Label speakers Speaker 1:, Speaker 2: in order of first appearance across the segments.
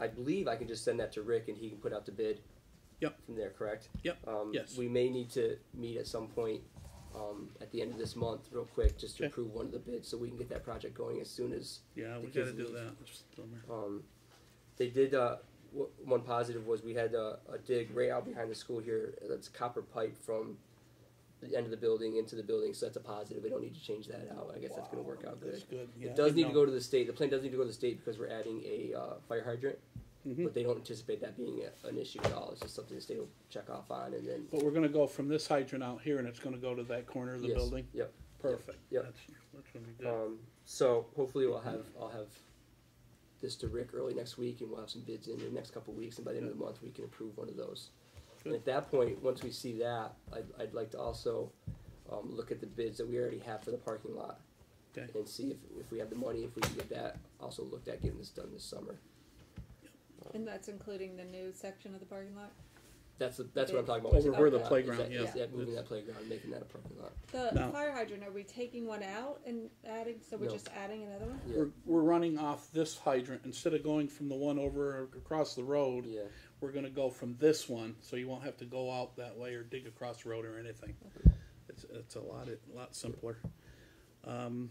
Speaker 1: I believe I can just send that to Rick and he can put out the bid.
Speaker 2: Yep.
Speaker 1: From there, correct?
Speaker 2: Yep,
Speaker 1: Um,
Speaker 2: yes.
Speaker 1: We may need to meet at some point, um, at the end of this month, real quick, just to
Speaker 2: Okay.
Speaker 1: approve one of the bids, so we can get that project going as soon as
Speaker 2: Yeah, we
Speaker 1: The
Speaker 2: gotta
Speaker 1: kids
Speaker 2: do
Speaker 1: leave.
Speaker 2: that, which is a bummer.
Speaker 1: um, they did. Uh, w- one positive was we had a, a dig right out behind the school here. That's copper pipe from the end of the building into the building, so that's a positive. We don't need to change that out. I guess that's going to work out good.
Speaker 2: That's good, yeah.
Speaker 1: It does need to go to the state. The plan does need to go to the state because we're adding a uh, fire hydrant,
Speaker 2: Mhm.
Speaker 1: but they don't anticipate that being a, an issue at all. It's just something the state will check off on, and then
Speaker 2: But we're gonna go from this hydrant out here and it's gonna go to that corner of the
Speaker 1: Yes,
Speaker 2: building?
Speaker 1: Yep.
Speaker 2: Perfect.
Speaker 1: yep.
Speaker 2: That's- That's gonna be good.
Speaker 1: Um, so hopefully we'll have I'll have this to Rick early next week, and we'll have some bids in the next couple of weeks, and by the end of the month we can approve one of those. And at that point, once we see that, I'd, I'd like to also um, look at the bids that we already have for the parking lot
Speaker 2: Okay,
Speaker 1: and see if, if we have the money, if we can get that also looked at getting this done this summer.
Speaker 3: And that's including the new section of the parking lot?
Speaker 1: That's the, that's what I'm talking about.
Speaker 2: Over where the
Speaker 1: Is that- is
Speaker 2: playground,
Speaker 1: that- is
Speaker 2: yeah.
Speaker 1: that moving that playground, and making that a parking lot.
Speaker 3: The
Speaker 2: No.
Speaker 3: fire hydrant, are we taking one out and adding, so we're
Speaker 1: No.
Speaker 3: just adding another one?
Speaker 1: Yeah,
Speaker 2: we're, we're running off this hydrant, instead of going from the one over across the road,
Speaker 1: yeah.
Speaker 2: we're gonna go from this one, so you won't have to go out that way or dig across the road or anything. It's, it's a lot, a lot simpler. Um,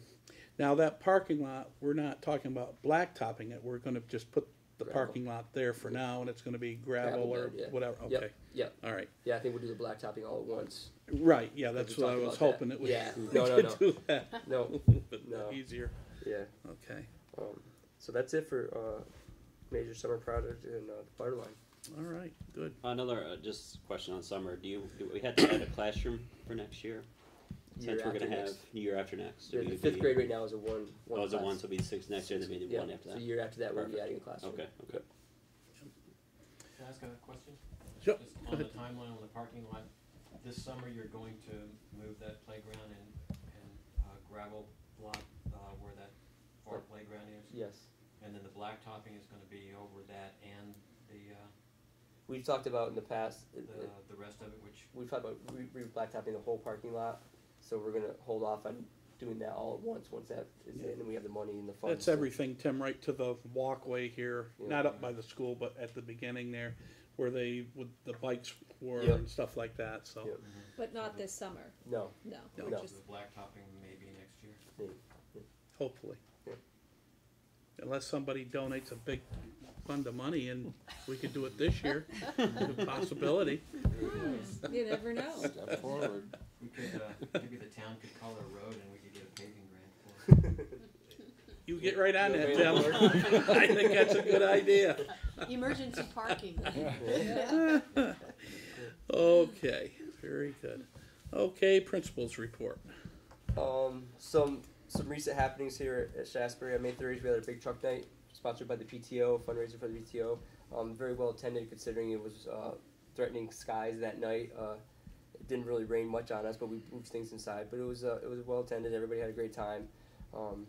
Speaker 2: now that parking lot, we're not talking about blacktopping it, we're gonna just put the
Speaker 1: Gravel.
Speaker 2: parking lot there for now, and it's gonna be gravel
Speaker 1: Gravel
Speaker 2: or
Speaker 1: bed, yeah.
Speaker 2: whatever,
Speaker 1: Yep,
Speaker 2: okay,
Speaker 1: Yep,
Speaker 2: all right.
Speaker 1: yeah, I think we'll do the blacktopping all at once.
Speaker 2: Right, yeah,
Speaker 1: Like
Speaker 2: that's
Speaker 1: we
Speaker 2: what I
Speaker 1: talked
Speaker 2: was
Speaker 1: about that.
Speaker 2: hoping it would.
Speaker 1: Yeah.
Speaker 2: we
Speaker 1: No, no,
Speaker 2: could
Speaker 1: no.
Speaker 2: Do that,
Speaker 1: No,
Speaker 2: but
Speaker 1: No.
Speaker 2: easier,
Speaker 1: yeah.
Speaker 2: okay,
Speaker 1: Um, so that's it for uh, major summer project and uh, the fire line.
Speaker 2: all right, good.
Speaker 4: Another uh, just question on summer. Do you do we had to add a classroom for next year? Since we're going to have year after next. so
Speaker 1: yeah, the
Speaker 4: we'd
Speaker 1: fifth
Speaker 4: be-
Speaker 1: grade right now is a one. one
Speaker 4: Oh, is it
Speaker 1: class.
Speaker 4: one? So it'll be six next year, then maybe
Speaker 1: yeah,
Speaker 4: one after
Speaker 1: So
Speaker 4: that.
Speaker 1: year after that, we'll be
Speaker 4: Perfect.
Speaker 1: adding a classroom.
Speaker 4: Okay. Okay.
Speaker 5: Can I ask a question?
Speaker 2: Sure,
Speaker 5: Just
Speaker 2: go
Speaker 5: on the
Speaker 2: ahead.
Speaker 5: timeline on the parking lot, this summer you're going to move that playground and, and uh, gravel block, uh, where that far playground is?
Speaker 1: Yes,
Speaker 5: And then the blacktopping is gonna be over that and the, uh,
Speaker 1: we've talked about in the past. uh,
Speaker 5: the, the rest of it, which,
Speaker 1: We've talked about re- re- blacktopping the whole parking lot, so we're gonna hold off on doing that all at once. Once that is
Speaker 2: Yeah.
Speaker 1: in, and we have the money and the funds.
Speaker 2: That's everything, Tim, right to the walkway here,
Speaker 1: Yeah.
Speaker 2: not up by the school, but at the beginning there, where they, with the bikes were
Speaker 1: Yeah.
Speaker 2: and stuff like that, so.
Speaker 1: Yeah.
Speaker 3: But not this summer,
Speaker 1: No,
Speaker 3: no.
Speaker 2: No.
Speaker 3: we're
Speaker 1: No.
Speaker 3: just-
Speaker 5: the blacktopping maybe next year?
Speaker 2: Hopefully.
Speaker 1: Yeah.
Speaker 2: Unless somebody donates a big fund of money and we could do it this year, a possibility.
Speaker 3: You never know.
Speaker 6: Step forward.
Speaker 5: We could, uh, maybe the town could call a road and we could get a paving grant for it.
Speaker 2: You get right on that, Tim.
Speaker 1: Available.
Speaker 2: I think that's a good idea.
Speaker 7: Emergency parking.
Speaker 2: Okay, very good. Okay, principals report.
Speaker 1: Um, some some recent happenings here at Shasbury. On May 30th, we had a big truck night sponsored by the PTO, fundraiser for the PTO. Um, very well attended considering it was uh, threatening skies that night. Uh, it didn't really rain much on us, but we moved things inside. But it was uh, it was well attended. Everybody had a great time. Um,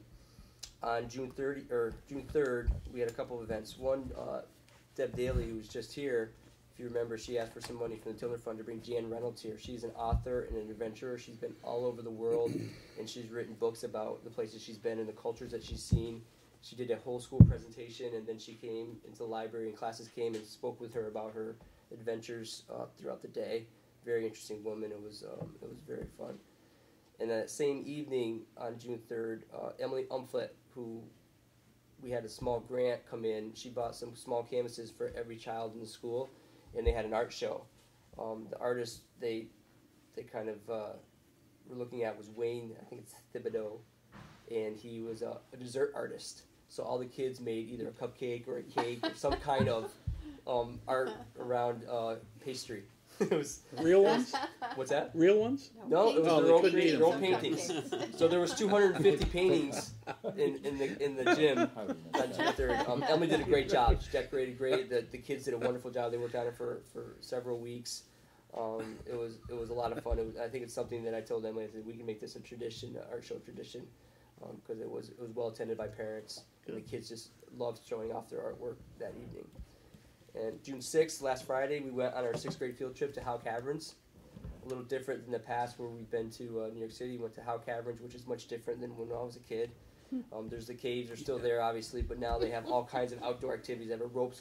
Speaker 1: on June 30 or June 3rd, we had a couple of events. One, uh, Deb Daly, who was just here, if you remember, she asked for some money from the Tiller Fund to bring Jan Reynolds here. She's an author and an adventurer. She's been all over the world, and she's written books about the places she's been and the cultures that she's seen. She did a whole school presentation, and then she came into the library, and classes came and spoke with her about her adventures uh, throughout the day. Very interesting woman. It was um, it was very fun. And that same evening on June third, uh, Emily Umflett, who we had a small grant come in, she bought some small canvases for every child in the school, and they had an art show. Um, the artist they they kind of uh, were looking at was Wayne, I think it's Thibodeau, and he was a, a dessert artist. So all the kids made either a cupcake or a cake or some kind of um, art around uh, pastry. it was
Speaker 2: Real ones?
Speaker 1: what's that?
Speaker 2: Real ones?
Speaker 1: No, it was
Speaker 2: Oh,
Speaker 1: their
Speaker 2: they
Speaker 1: own,
Speaker 2: couldn't eat
Speaker 1: their own
Speaker 2: them.
Speaker 1: paintings. So there was 250 paintings in, in the in the gym
Speaker 6: How do you know
Speaker 1: on
Speaker 6: that?
Speaker 1: June third. Um, Emily did a great job. She decorated great. The, the kids did a wonderful job. They worked on it for, for several weeks. Um, it was it was a lot of fun. It was, I think it's something that I told Emily. I said we can make this a tradition, an art show tradition, because it was it was well attended by parents. And the kids just loved showing off their artwork that evening. And June sixth, last Friday, we went on our sixth grade field trip to Howe Caverns a little different than the past where we've been to uh, New York City. Went to Howe Caverns, which is much different than when I was a kid. Um, there's the caves are still there, obviously, but now they have all kinds of outdoor activities. They have a ropes